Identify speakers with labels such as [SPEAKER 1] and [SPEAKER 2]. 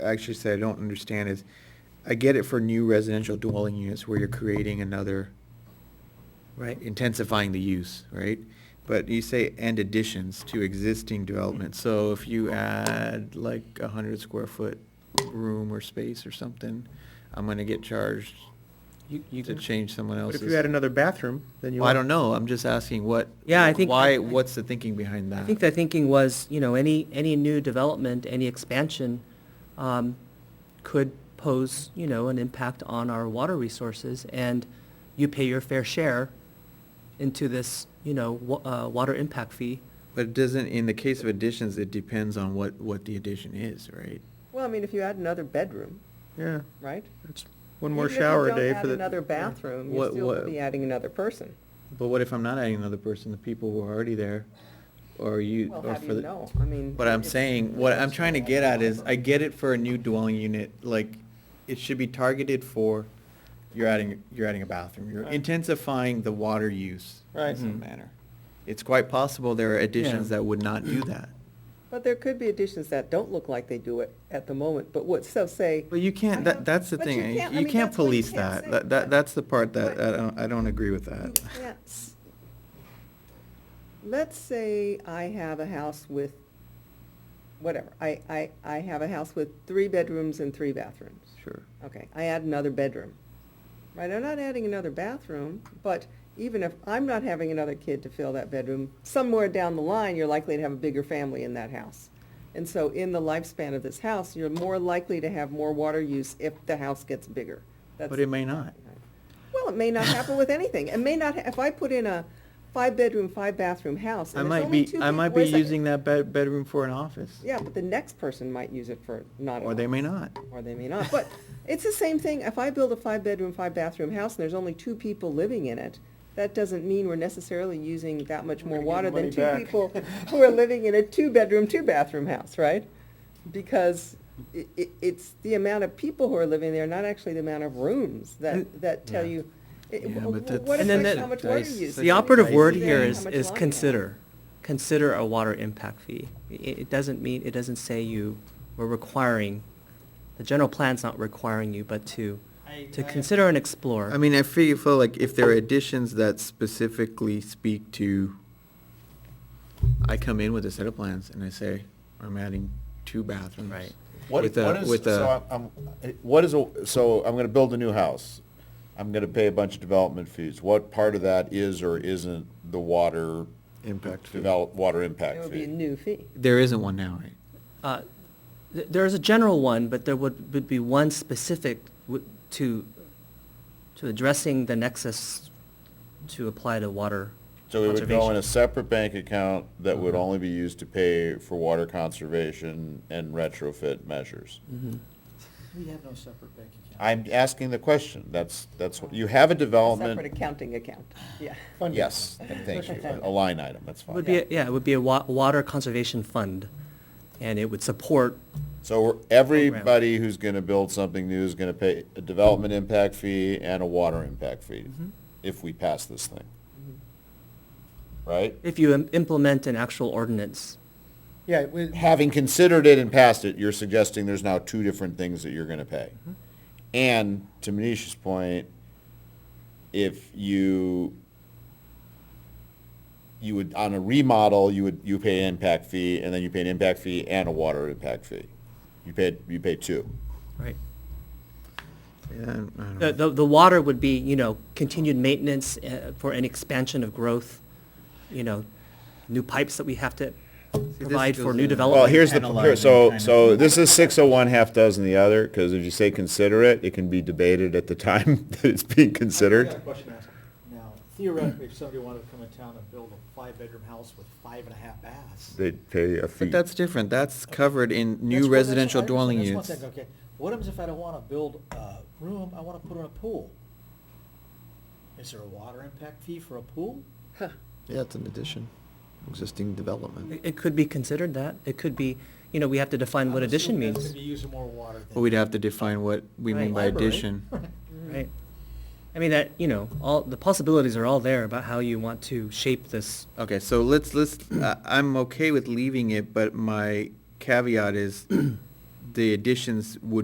[SPEAKER 1] actually say I don't understand is, I get it for new residential dwelling units where you're creating another,
[SPEAKER 2] Right.
[SPEAKER 1] intensifying the use, right? But you say and additions to existing development, so if you add like a hundred square foot room or space or something, I'm gonna get charged
[SPEAKER 2] You, you
[SPEAKER 1] to
[SPEAKER 2] can,
[SPEAKER 1] change someone
[SPEAKER 3] But
[SPEAKER 1] else's.
[SPEAKER 3] if you had another bathroom, then you.
[SPEAKER 1] Well, I don't know, I'm just asking what.
[SPEAKER 2] Yeah, I think-
[SPEAKER 1] Why, what's the thinking behind that?
[SPEAKER 2] I think the thinking was, you know, any, any new development, any expansion, um, could pose, you know, an impact on our water resources, and you pay your fair share into this, you know, wa- uh, water impact fee.
[SPEAKER 1] But it doesn't, in the case of additions, it depends on what, what the addition is, right?
[SPEAKER 4] Well, I mean, if you add another bedroom,
[SPEAKER 3] Yeah,
[SPEAKER 4] right?
[SPEAKER 3] it's one more
[SPEAKER 4] Even if you
[SPEAKER 3] shower a
[SPEAKER 4] don't
[SPEAKER 3] day
[SPEAKER 4] add
[SPEAKER 3] for the.
[SPEAKER 4] Another bathroom,
[SPEAKER 1] What-
[SPEAKER 4] you're still
[SPEAKER 1] what-
[SPEAKER 4] gonna be adding another person.
[SPEAKER 1] But what if I'm not adding another person, the people who are already there, or you,
[SPEAKER 4] Well,
[SPEAKER 1] or
[SPEAKER 4] how
[SPEAKER 1] for
[SPEAKER 4] do you
[SPEAKER 1] the.
[SPEAKER 4] know? I mean.
[SPEAKER 1] But I'm
[SPEAKER 4] it's-
[SPEAKER 1] saying, what I'm trying to get at is, I get it for a new dwelling unit, like, it should be targeted for, you're adding, you're adding a bathroom, you're
[SPEAKER 3] Right.
[SPEAKER 1] intensifying the water use in
[SPEAKER 3] Right.
[SPEAKER 1] some manner. It's quite possible there are additions
[SPEAKER 2] Yeah.
[SPEAKER 1] that would not do that.
[SPEAKER 4] But there could be additions that don't look like they do it at the moment, but what, so say,
[SPEAKER 1] But you can't, that, that's the
[SPEAKER 4] But you
[SPEAKER 1] thing, eh?
[SPEAKER 4] can't- I
[SPEAKER 1] you
[SPEAKER 4] mean,
[SPEAKER 1] can't
[SPEAKER 4] that's what you
[SPEAKER 1] police
[SPEAKER 4] can't
[SPEAKER 1] that,
[SPEAKER 4] say.
[SPEAKER 1] that, that, that's the part that,
[SPEAKER 4] But-
[SPEAKER 1] I don't, I don't agree with
[SPEAKER 4] you
[SPEAKER 1] that.
[SPEAKER 4] can't s- let's say I have a house with, whatever, I, I, I have a house with three bedrooms and three bathrooms.
[SPEAKER 1] Sure.
[SPEAKER 4] Okay, I add another bedroom. Right, I'm not adding another bathroom, but even if I'm not having another kid to fill that bedroom, somewhere down the line, you're likely to have a bigger family in that house. And so in the lifespan of this house, you're more likely to have more water use if the house gets bigger. That's-
[SPEAKER 1] But it may not.
[SPEAKER 4] Well, it may not happen with anything. It may not, ha- if I put in a five-bedroom, five-bathroom house,
[SPEAKER 1] I
[SPEAKER 4] and it's
[SPEAKER 1] might
[SPEAKER 4] only
[SPEAKER 1] be,
[SPEAKER 4] two.
[SPEAKER 1] I
[SPEAKER 4] peop-
[SPEAKER 1] might be
[SPEAKER 4] wait a second.
[SPEAKER 1] using that bed, bedroom for an office,
[SPEAKER 4] Yeah, but the next person might use it for not.
[SPEAKER 1] or they may not.
[SPEAKER 4] or they may not. But it's the same thing, if I build a five-bedroom, five-bathroom house and there's only two people living in it, that doesn't mean we're necessarily using that much more
[SPEAKER 3] We're gonna give
[SPEAKER 4] water
[SPEAKER 3] the
[SPEAKER 4] than
[SPEAKER 3] money
[SPEAKER 4] two
[SPEAKER 3] back.
[SPEAKER 4] people who are living in a two-bedroom, two-bathroom house, right? Because i i it's the amount of people who are living there, not actually the amount of rooms that, that tell
[SPEAKER 1] Mm. Yeah.
[SPEAKER 4] you, it-
[SPEAKER 1] Yeah,
[SPEAKER 4] w-
[SPEAKER 1] but
[SPEAKER 4] w-
[SPEAKER 1] that's-
[SPEAKER 4] what
[SPEAKER 2] And then
[SPEAKER 4] affects
[SPEAKER 2] that-
[SPEAKER 4] how much water
[SPEAKER 1] Dice-
[SPEAKER 4] use?
[SPEAKER 1] such
[SPEAKER 2] The
[SPEAKER 1] a
[SPEAKER 2] operative
[SPEAKER 1] dicey
[SPEAKER 2] word
[SPEAKER 1] thing.
[SPEAKER 2] here
[SPEAKER 4] How
[SPEAKER 2] is,
[SPEAKER 4] much
[SPEAKER 2] is
[SPEAKER 4] longer?
[SPEAKER 2] consider. Consider a water impact fee. I- It, doesn't mean, it doesn't say you, we're requiring, the general plan's not requiring you, but to, to consider and explore.
[SPEAKER 1] I mean, I feel, feel like if there are additions that specifically speak to, I come in with a set of plans and I say, I'm adding two bathrooms.
[SPEAKER 2] Right.
[SPEAKER 5] What,
[SPEAKER 1] with a-
[SPEAKER 5] what is,
[SPEAKER 1] With
[SPEAKER 5] so
[SPEAKER 1] a,
[SPEAKER 5] I'm, I'm- what is, a- so I'm gonna build a new house. I'm gonna pay a bunch of development fees. What part of that is or isn't the water?
[SPEAKER 1] Impact fee.
[SPEAKER 5] Develop, water
[SPEAKER 4] It
[SPEAKER 5] impact
[SPEAKER 4] would be a
[SPEAKER 5] fee?
[SPEAKER 4] new fee.
[SPEAKER 1] there isn't one now, right?
[SPEAKER 2] Uh, th- There is a general one, but there would, would be one specific w- to, to addressing the nexus to apply to water
[SPEAKER 5] So it would go
[SPEAKER 2] conservation.
[SPEAKER 5] in a separate bank account that would
[SPEAKER 1] Uh-huh.
[SPEAKER 5] only be used to pay for water conservation and retrofit measures.
[SPEAKER 2] Mm-hmm.
[SPEAKER 3] We have no separate bank account.
[SPEAKER 5] I'm asking the question. That's, that's, what you have a
[SPEAKER 4] Separate
[SPEAKER 5] development.
[SPEAKER 4] accounting account, yeah.
[SPEAKER 5] Yes, thank you. A line item, that's
[SPEAKER 2] It Would
[SPEAKER 5] fine.
[SPEAKER 2] be, a- yeah, it would be a wa- water conservation fund, and it would support,
[SPEAKER 5] So we're- everybody who's gonna build something new is gonna pay a development impact fee and a water impact fee
[SPEAKER 3] Mm-hmm.
[SPEAKER 5] if we pass this thing.
[SPEAKER 4] Mm-hmm.
[SPEAKER 5] Right?
[SPEAKER 2] if you im- implement an actual ordinance.
[SPEAKER 3] Yeah, we,
[SPEAKER 5] Having considered it and passed it, you're suggesting there's now two different things that you're gonna pay.
[SPEAKER 3] Mm-hmm.
[SPEAKER 5] And to Manisha's point, if you, you would, on a remodel, you would, you pay an impact fee and then you pay an impact fee and a water impact fee. You paid, you pay two.
[SPEAKER 2] Right.
[SPEAKER 1] Yeah, I don't know.
[SPEAKER 2] The, the, the water would be, you know, continued maintenance uh, for an expansion of growth, you know, new pipes that we have to
[SPEAKER 1] this
[SPEAKER 2] provide for
[SPEAKER 1] goes
[SPEAKER 2] new
[SPEAKER 1] in-
[SPEAKER 5] Well,
[SPEAKER 2] development.
[SPEAKER 5] here's the,
[SPEAKER 1] Analyzing
[SPEAKER 5] here- so,
[SPEAKER 1] kind of-
[SPEAKER 5] so this is six of one, half dozen the other, because if you say consider it, it can be debated at the time that it's being
[SPEAKER 6] I got a
[SPEAKER 5] considered.
[SPEAKER 6] question to ask. Now, theoretically, if somebody wanted to come in town and build a five-bedroom house with five and a half baths.
[SPEAKER 5] They'd pay a fee.
[SPEAKER 1] But that's different, that's covered in
[SPEAKER 6] That's
[SPEAKER 1] new
[SPEAKER 6] one- that's-
[SPEAKER 1] residential
[SPEAKER 6] I understand.
[SPEAKER 1] dwelling
[SPEAKER 6] That's one
[SPEAKER 1] units.
[SPEAKER 6] thing, Okay, what happens if I don't want to build a room, I want to put in a pool? Is there a water impact fee for a pool?
[SPEAKER 3] Yeah, it's an addition, existing development.
[SPEAKER 2] It- It could be considered that. It could be, you know, we have to define what
[SPEAKER 6] I'm
[SPEAKER 2] addition
[SPEAKER 6] assuming That's
[SPEAKER 2] means,
[SPEAKER 6] going to be using more water than.
[SPEAKER 1] But we'd have to define what we mean by
[SPEAKER 2] Right.
[SPEAKER 6] Library.
[SPEAKER 1] addition.
[SPEAKER 2] right? I mean, that, you know, all, the possibilities are all there about how you want to shape this.
[SPEAKER 1] Okay, so uh, let's, let's, I- I'm okay with leaving it, but my caveat is the additions would